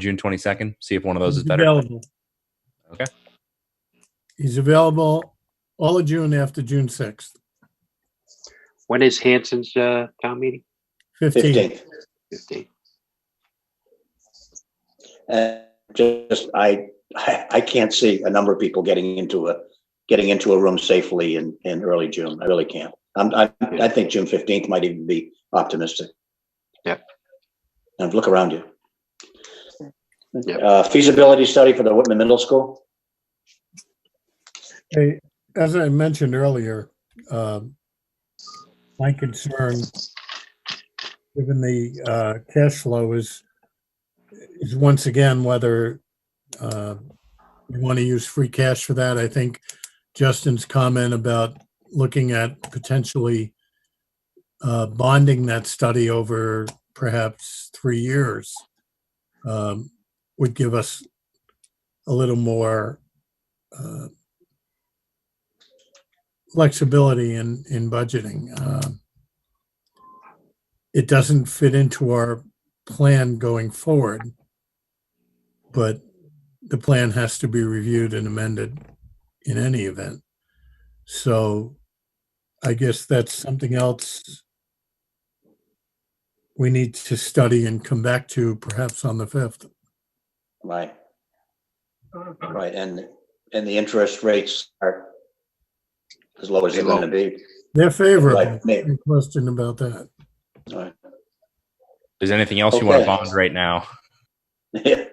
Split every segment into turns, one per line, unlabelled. June 22nd. See if one of those is
He's
better.
available.
Okay.
He's available all of June after June 6th,
When is Hanson's uh, town meeting?
15th.
Fifteenth.
15.
And just, I, I I can't see a number of people getting into a, getting into a room safely in, in early June. I really can't. I'm, I, I think June fifteenth might even be optimistic.
Yep.
And look around you.
Yep.
Uh, feasibility study for the Whitman Middle School?
Hey, As I mentioned earlier, um, my concern, given the uh, cash flow is, is once again whether uh, we want to use free cash for that. I think Justin's comment about looking at potentially uh, bonding that study over perhaps three years um, would give us a little more uh, flexibility in, in budgeting. Um, It doesn't fit into our plan going forward, but the plan has to be reviewed and amended in any event. So I guess that's something else we need to study and come back to perhaps on the 5th.
Right. Right, and, and the interest rates are as low as they're gonna be.
They're favorable,
Right, may-
no question about that.
right.
Is there anything else you want to
Okay.
bond right now?
Yeah.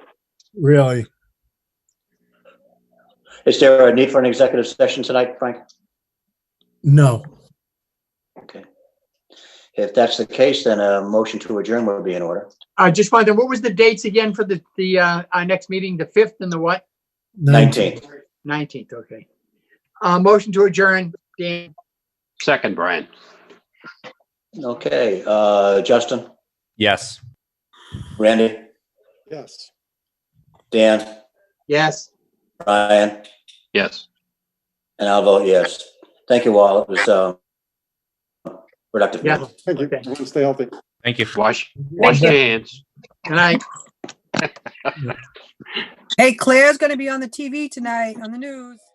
Really,
Is there a need for an executive session tonight, Frank?
no.
Okay. If that's the case, then a motion to adjourn would be in order.
I Uh, just wondered, what was the dates again for the, the, uh, our next meeting, the fifth and the what?
Nineteenth.
Nineteenth, okay. Uh, motion to adjourn, Dan,
Second, Brian.
Okay, uh, Justin,
Yes.
Randy,
Yes.
Dan,
yes.
Brian,
Yes.
and I'll vote yes. Thank you all. It was, uh, productive.
Yeah.
Thank you.
Okay.
Everyone stay healthy.
Thank you.
Wash, wash your hands.
Good night.
Hey, Claire's going to be on the TV tonight on the news.